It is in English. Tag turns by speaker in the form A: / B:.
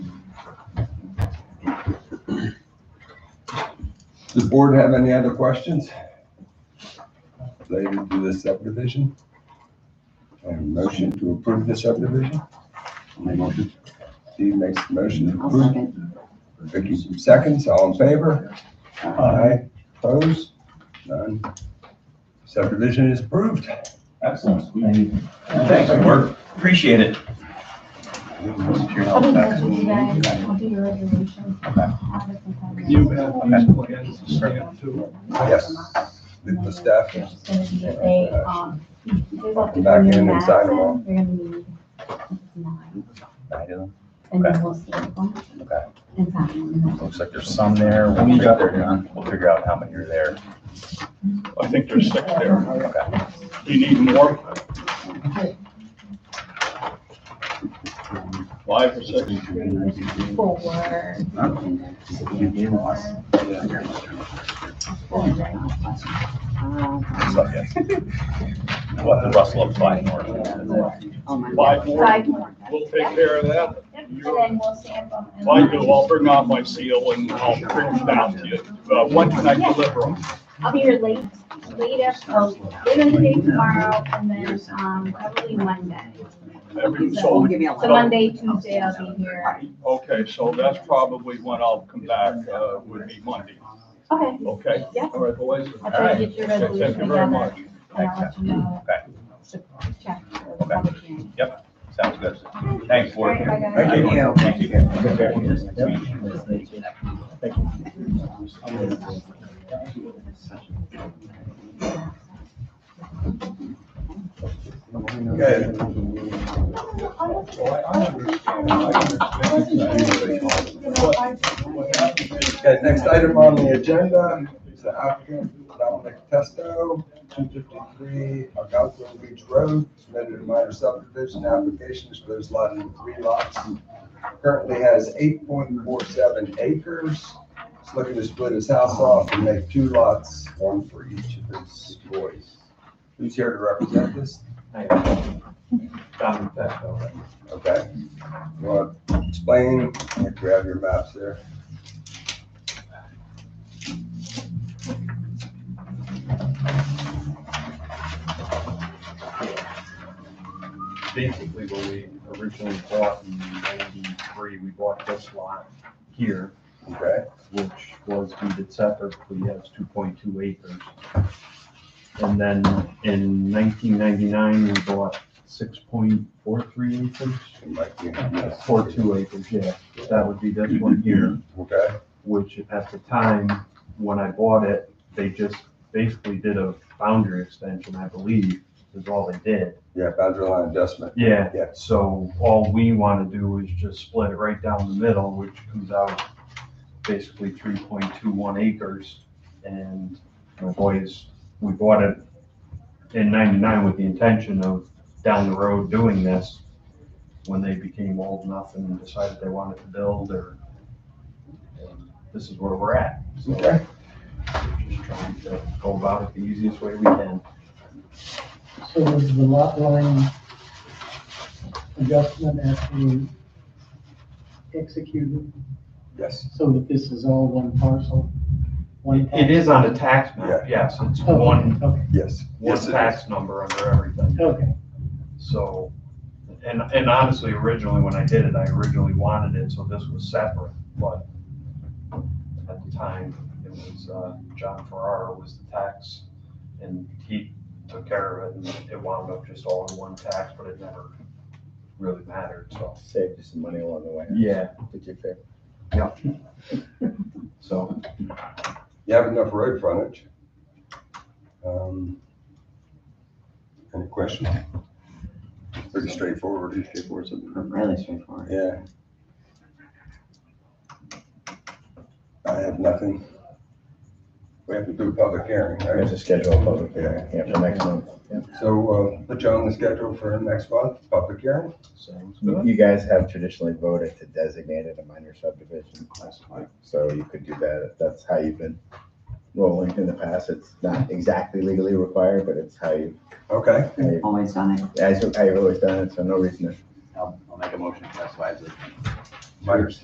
A: Does board have any other questions? Related to this subdivision? And motion to approve the subdivision? Make motion. Steve makes the motion to
B: I'll
A: approve.
B: second.
A: Vicky seconds, all in favor? Aye. Opposed? None. Subdivision is approved.
C: Excellent. Thank you.
D: Thanks, Mark. Appreciate it.
B: I'll be back with you guys. I'll do your resolution.
E: You have these plans to stamp too.
A: Yes. With the staff.
B: It's just gonna be that they, um, they want to
A: Back
B: bring
A: in
B: in
A: and sign them all.
B: Madison. They're gonna need nine, and then we'll stamp them
D: Okay.
B: and sign them. and that's it.
D: Looks like there's some there. We'll
C: We got
D: figure- We'll figure out how many are there.
E: I think there's six there.
D: Okay.
E: Do you need more? Five or six?
B: Four.
D: So, yeah. We'll have to rustle up five more.
E: Five more?
B: Five more.
E: We'll take care of that.
B: And then we'll stamp them. and-
E: Well, you, I'll bring out my seal and I'll bring it down to you. Uh, when can I deliver them?
B: I'll be here late, late after, later in the day tomorrow, and then, um, probably Monday.
E: Every,
B: So
E: so,
B: so Monday, Tuesday, I'll be here.
E: okay, so that's probably when I'll come back, uh, would be Monday,
B: Okay,
E: okay?
B: Yeah.
E: All right, boys.
B: I'll try to get your
E: Okay,
B: resolution
E: Thank you
B: together,
E: very much.
B: and I'll let you know.
D: Okay.
B: So check for the public hearing.
D: Sounds good. Thanks, Ward.
B: All right, bye, guys.
A: Thank
D: you. Thank you.
A: Okay. Okay, next item on the agenda is the applicant Dominic Testo, two fifty-three Algonquin Beach Road, submitted a minor subdivision application, which lives lot in three lots. Currently has eight point four seven acres. He's looking to split his house off and make two lots, one for each of his boys. Who's here to represent this? Okay. You want to explain, grab your maps there.
F: basically what we originally bought in ninety-three, we bought this lot here,
A: Okay,
F: which was deeded separately as two point two acres. And then in nineteen ninety-nine, we bought six point four three acres,
A: it might be.
F: four two acres, yeah. That would be this one here,
A: Okay,
F: which at the time, when I bought it, they just basically did a boundary extension, I believe, is all they did.
A: yeah, boundary line adjustment.
F: Yeah,
A: Yeah.
F: so all we want to do is just split it right down the middle, which comes out basically three point two one acres. And my boys, we bought it in ninety-nine with the intention of down the road doing this when they became old enough and decided they wanted to build or and this is where we're at. So we're
A: Okay,
F: just trying to go about it the easiest way we can.
G: So was the lot line adjustment actually executed
A: yes.
G: so that this is all one parcel? One
F: It is on a tax map, Oh. yes, it's
G: tax? Okay,
F: one
G: Okay,
A: Yes.
F: one
A: Yes, it
F: tax number under everything.
G: okay,
F: So, and, and honestly, originally, when I did it, I originally wanted it, so this was separate, but at the time, it was, uh, John Ferraro was the tax, and he took care of it, and it wound up just all in one tax, but it never really mattered, so.
H: saved you some money along the way.
F: Yeah.
H: Did you favor?
F: So,
A: You have enough road frontage. Um, Any questions? Pretty straightforward. Pretty straightforward,
I: Really straightforward.
A: Yeah. I have nothing. We have to do a public hearing,
H: I
A: right?
H: guess to schedule a public hearing, yeah, for next month.
A: So, uh, put you on the schedule for next month, public hearing?
F: sounds
H: You
F: good.
H: you guys have traditionally voted to designate it a minor subdivision, so you could do that, if that's how you've been rolling in the past. It's not exactly legally required, but it's how you,
A: Okay,
H: how you-
I: Always done it.
H: as you- how you've always done it, so no reason to
D: I'll, I'll make a motion to classify as a
A: Myers.